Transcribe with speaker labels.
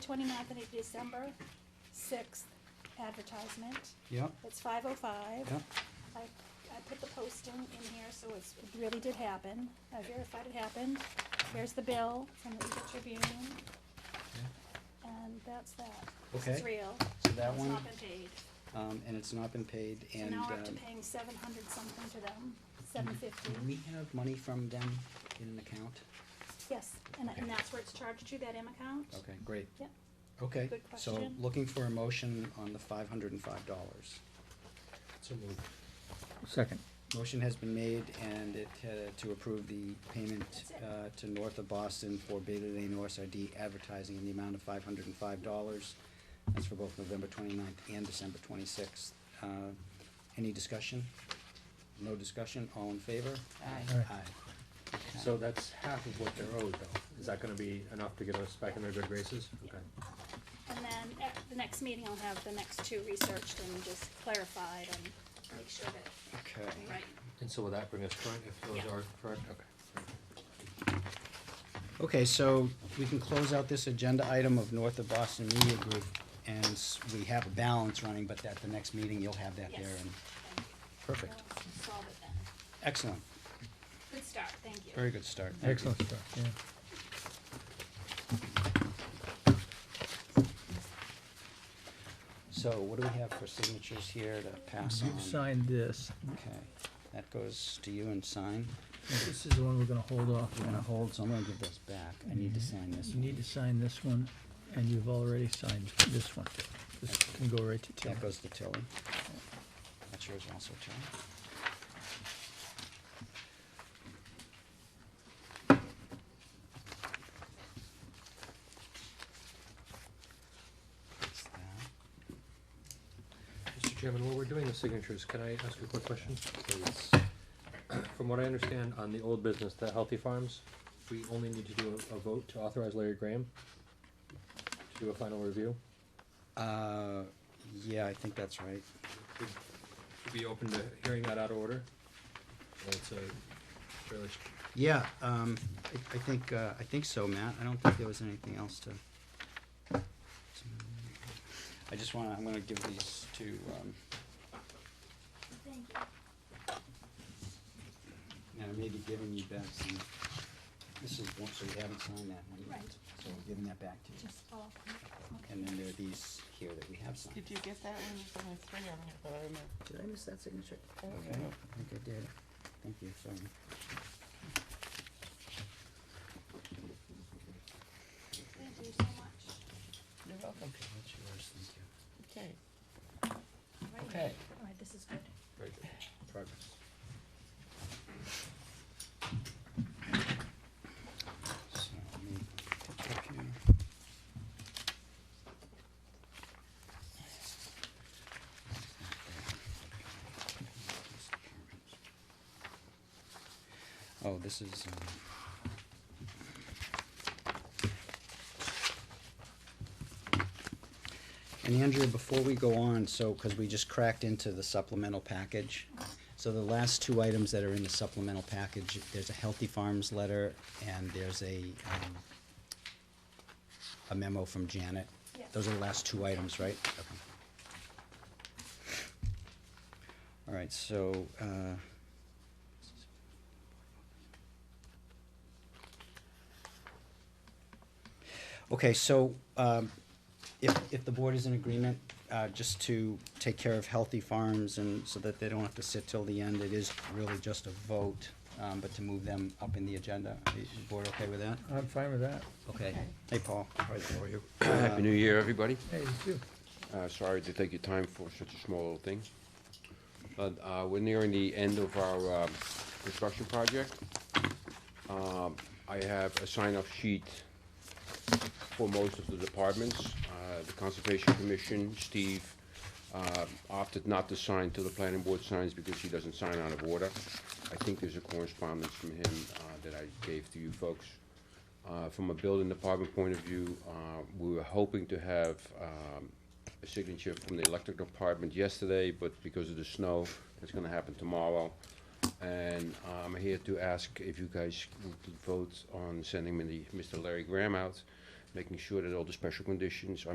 Speaker 1: 29th of December, sixth advertisement.
Speaker 2: Yep,
Speaker 1: It's five oh five.
Speaker 2: yep,
Speaker 1: I, I put the posting in here, so it's, it really did happen. I verified it happened. Here's the bill from the Eagle Tribune, and that's that. This is
Speaker 2: Okay.
Speaker 1: real.
Speaker 2: So that
Speaker 1: It's
Speaker 2: one-
Speaker 1: not been paid.
Speaker 2: um, and it's not been paid
Speaker 1: So
Speaker 2: and,
Speaker 1: now we're up to
Speaker 2: um, Mm-hmm.
Speaker 1: paying seven hundred something to them, seven fifty.
Speaker 2: do we have money from them in an account?
Speaker 1: Yes, and,
Speaker 2: Okay.
Speaker 1: and that's where it's charged to, that M account.
Speaker 2: Okay, great.
Speaker 1: Yep.
Speaker 2: Okay,
Speaker 1: Good
Speaker 2: so
Speaker 1: question.
Speaker 2: looking for a motion on the five hundred and five dollars.
Speaker 3: So moved.
Speaker 4: Second.
Speaker 2: Motion has been made and it, uh, to approve the payment,
Speaker 1: That's it.
Speaker 2: uh, to North of Boston for Bailey Lane OSRD advertising in the amount of five hundred and five dollars. That's for both November twenty-ninth and December twenty-sixth. Uh, any discussion? No discussion, all in favor?
Speaker 5: Aye.
Speaker 4: Aye.
Speaker 2: Aye.
Speaker 3: So that's half of what they're owed though. Is that gonna be enough to get us back in our good graces? Okay.
Speaker 1: And then at the next meeting, I'll have the next two researched and just clarified and make sure that,
Speaker 2: Okay.
Speaker 1: right.
Speaker 3: And so will that bring us current if those
Speaker 1: Yeah.
Speaker 3: are correct? Okay.
Speaker 2: Okay, so we can close out this agenda item of North of Boston Media Group, and s- we have a balance running, but at the next meeting, you'll have that there,
Speaker 1: Yes.
Speaker 2: and,
Speaker 1: Thank you.
Speaker 2: perfect.
Speaker 1: We'll Solve it then.
Speaker 2: Excellent,
Speaker 1: Good start, thank you.
Speaker 2: very good start. Thank you.
Speaker 4: Excellent start, yeah.
Speaker 2: So what do we have for signatures here to pass
Speaker 4: You've
Speaker 2: on?
Speaker 4: signed this.
Speaker 2: Okay, that goes to you and sign.
Speaker 4: This is the one we're gonna hold off
Speaker 2: We're gonna
Speaker 4: on.
Speaker 2: hold, so I'm gonna give those back, I need to sign this
Speaker 4: Mm-hmm. You need to
Speaker 2: one.
Speaker 4: sign this one, and you've already signed this one. This can go right to Tim.
Speaker 2: That goes to Tilly. That's yours also, Tilly. That's that.
Speaker 3: Mr. Chairman, while we're doing the signatures, can I ask a quick question?
Speaker 2: Please.
Speaker 3: From what I understand on the old business, the Healthy Farms, we only need to do a, a vote to authorize Larry Graham to do a final review.
Speaker 2: Uh, yeah, I think that's right.
Speaker 3: Would would be open to hearing that out of order? It's a fairly s-
Speaker 2: Yeah, um, I, I think, uh, I think so, Matt, I don't think there was anything else to. I just wanna, I'm gonna give these to, um,
Speaker 1: Thank you.
Speaker 2: and I may be giving you back some, this is one, so we haven't signed that one yet,
Speaker 1: Right.
Speaker 2: so I'm giving that back to you.
Speaker 1: Just all, okay.
Speaker 2: And then there are these here that we have signed.
Speaker 5: Did you get that one? There's only three on it, but I remember.
Speaker 2: Did I miss that signature?
Speaker 5: Okay.
Speaker 2: Okay, I think I did. Thank you, sorry.
Speaker 1: Thank you so much.
Speaker 5: You're welcome.
Speaker 2: Okay, that's yours, thank you.
Speaker 5: Okay,
Speaker 1: Right.
Speaker 5: okay.
Speaker 1: All right, this is good.
Speaker 3: very good.
Speaker 2: Progress. So, let me pick up here. Oh, this is, um. And Andrea, before we go on, so, cause we just cracked into the supplemental package. So the last two items that are in the supplemental package, there's a Healthy Farms letter and there's a, um, a memo from Janet.
Speaker 1: Yes.
Speaker 2: Those are the last two items, right? Okay. All right, so, uh, okay, so, um, if, if the board is in agreement, uh, just to take care of healthy farms and so that they don't have to sit till the end, it is really just a vote, um, but to move them up in the agenda. Is the board okay with that?
Speaker 4: I'm fine with that.
Speaker 2: Okay.
Speaker 5: Okay.
Speaker 2: Hey, Paul.
Speaker 6: Happy New Year, everybody.
Speaker 4: Hey, you too.
Speaker 6: Uh, Sorry to take your time for such a small little thing. But uh, we're nearing the end of our um, construction project. Um, I have a sign-off sheet for most of the departments. Uh, The Conservation Commission, Steve uh, opted not to sign till the planning board signs because he doesn't sign out of order. I think there's a correspondence from him uh, that I gave to you folks. Uh, From a building department point of view, uh, we were hoping to have um, a signature from the electric department yesterday, but because of the snow, it's gonna happen tomorrow. And uh, I'm here to ask if you guys would vote on sending me the- Mr. Larry Graham out making sure that all the special conditions are